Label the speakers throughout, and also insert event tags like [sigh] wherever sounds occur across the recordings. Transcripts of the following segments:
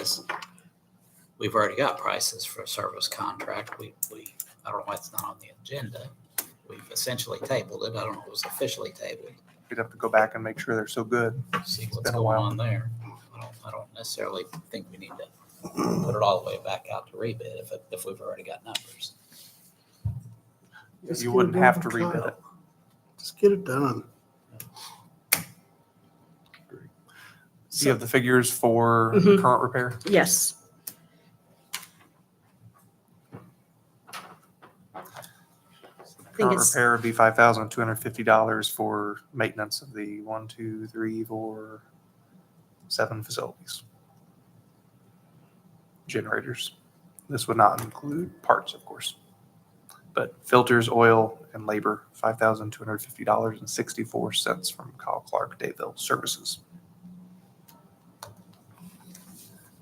Speaker 1: is we've already got prices for a service contract. We, we, I don't know why it's not on the agenda. We've essentially tabled it. I don't know if it was officially tabled.
Speaker 2: We'd have to go back and make sure they're so good.
Speaker 1: See what's
Speaker 2: been a
Speaker 1: going
Speaker 2: while.
Speaker 1: on there. I don't, I don't necessarily think we need to put it all the way back out to rebid if, it- if we've already got numbers.
Speaker 3: Just
Speaker 2: You
Speaker 3: get it
Speaker 2: wouldn't have to
Speaker 3: done for
Speaker 2: rebid
Speaker 3: Kyle.
Speaker 2: it.
Speaker 3: Just get it done.
Speaker 2: Do you have the figures for
Speaker 4: Mhm.
Speaker 2: current repair?
Speaker 4: Yes. I think
Speaker 2: Current
Speaker 4: it's,
Speaker 2: repair would be five thousand two hundred fifty dollars for maintenance of the one, two, three, four, seven facilities. Generators. This would not include parts, of course. But filters, oil, and labor, five thousand two hundred fifty dollars and sixty-four cents from Kyle Clark Dayville Services.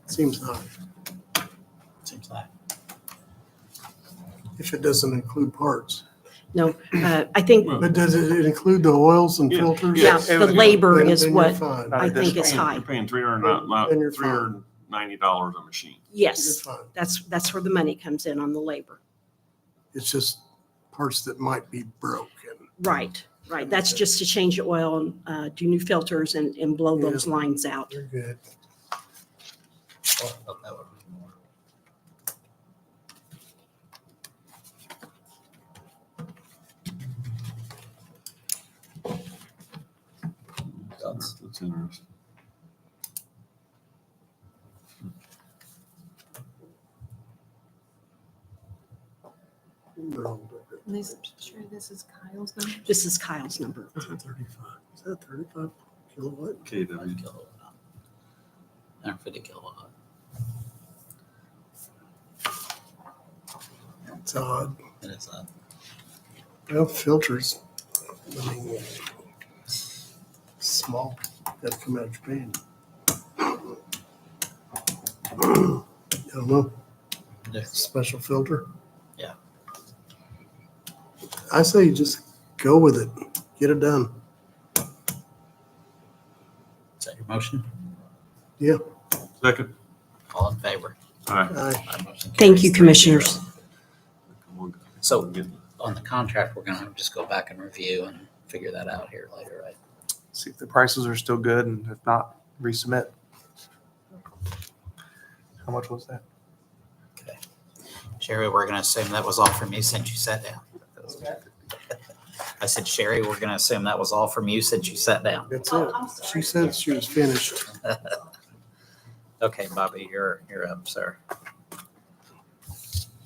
Speaker 3: Seems high.
Speaker 1: Seems like.
Speaker 3: If it doesn't include parts.
Speaker 4: no, uh, I think,
Speaker 5: Well,
Speaker 3: But does it include the oils and
Speaker 5: Yeah,
Speaker 3: filters?
Speaker 4: yeah,
Speaker 5: yes,
Speaker 2: it
Speaker 4: the
Speaker 2: was-
Speaker 4: labor
Speaker 3: Then-
Speaker 4: is
Speaker 3: then you're
Speaker 4: what
Speaker 3: fine.
Speaker 2: Not
Speaker 4: I think
Speaker 2: additional.
Speaker 4: is high.
Speaker 5: You're paying three hundred
Speaker 3: Then you're
Speaker 5: and
Speaker 3: fine.
Speaker 5: three hundred and ninety dollars a machine.
Speaker 3: You're
Speaker 4: Yes,
Speaker 3: fine.
Speaker 4: that's, that's where the money comes in on the labor.
Speaker 3: It's just parts that might be broken.
Speaker 4: Right, right. That's just to change the oil and uh, do new filters and, and blow those
Speaker 3: Yeah.
Speaker 4: lines out.
Speaker 3: You're good.
Speaker 1: Well, oh, that would be more. That's-
Speaker 5: That's interesting.
Speaker 3: They're all broken.
Speaker 6: I'm sure this is Kyle's number.
Speaker 4: This is Kyle's number.
Speaker 3: Is that 35? Is that 35 kilowatt?
Speaker 1: One
Speaker 5: KW.
Speaker 1: kilowatt. Hundred fifty kilowatt.
Speaker 3: It's odd.
Speaker 1: It is a
Speaker 3: Well, filters. I mean, Small, gotta come out of Japan. I don't know.
Speaker 1: different
Speaker 3: special filter?
Speaker 1: Yeah.
Speaker 3: I say you just go with it, get it done.
Speaker 1: Is that your motion?
Speaker 5: Second.
Speaker 1: All in favor?
Speaker 5: All right.
Speaker 3: I,
Speaker 1: My motion
Speaker 4: Thank you,
Speaker 1: carries three zero.
Speaker 4: commissioners.
Speaker 1: So- On the contract, we're gonna just go back and review and figure that out here later, right?
Speaker 2: See if the prices are still good and if not, resubmit. How much was that?
Speaker 1: Sherry, we're gonna assume that was all from you since you sat [laughs] down. I said, Sherry, we're gonna assume that was all from you since you sat down.
Speaker 3: that's it. She said she was finished.
Speaker 1: Okay, Bobby, you're, you're up, sir.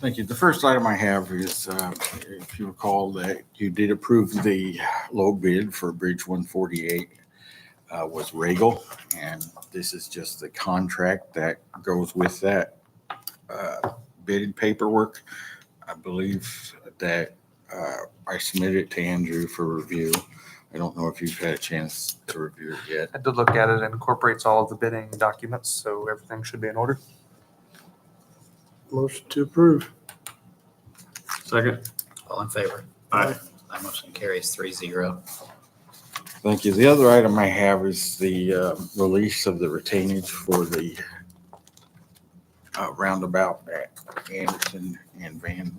Speaker 7: Thank you. The first item I have is, uh, if you recall, that you did approve the low bid for Bridge 148 uh, was Regal, and this is just the contract that goes with that uh, bid paperwork. I believe that uh, I submitted it to Andrew for review. I don't know if you've had a chance to review it yet.
Speaker 2: I did look at it. It incorporates all of the bidding documents, so everything should be in order.
Speaker 3: Motion to approve.
Speaker 5: Second.
Speaker 1: All in favor?
Speaker 5: Aye.
Speaker 1: My motion carries three zero.
Speaker 7: Thank you. The other item I have is the uh, release of the retainage for the uh, roundabout at Anderson and Van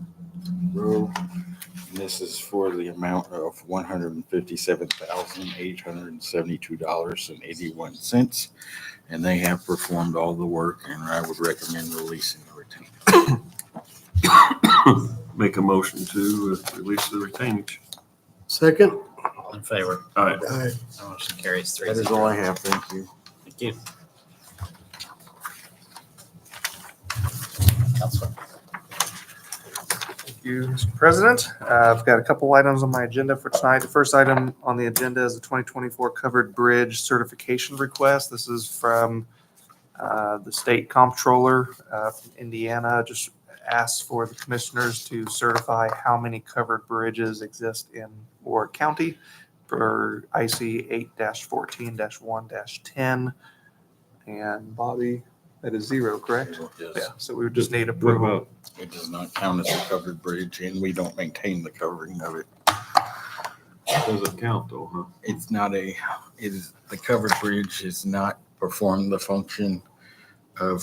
Speaker 7: Row. And This is for the amount of one hundred and fifty-seven thousand, eight hundred and seventy-two dollars and eighty-one cents. And they have performed all the work and I would recommend releasing the retainage.
Speaker 5: Make a motion to uh, release the retainage.
Speaker 3: Second?
Speaker 1: All in favor?
Speaker 5: All right.
Speaker 3: Aye.
Speaker 1: My motion carries three
Speaker 7: That
Speaker 1: zero.
Speaker 7: is all I have. Thank you.
Speaker 1: Thank you. Counselor.
Speaker 2: Thank you, Mr. President. Uh, I've got a couple items on my agenda for tonight. The first item on the agenda is the 2024 Covered Bridge Certification Request. This is from uh, the State Comptroller uh, from Indiana, just asks for the commissioners to certify how many covered bridges exist in Warwick County for IC 8-14-1-10. And Bobby, that is zero, correct? Yeah,
Speaker 7: Yes.
Speaker 2: so we would just need
Speaker 5: What
Speaker 2: approval.
Speaker 5: about,
Speaker 7: It does not count as a covered bridge and we don't maintain the covering of it.
Speaker 5: doesn't count though, huh?
Speaker 7: it's not a, it is, the covered bridge is not perform the function of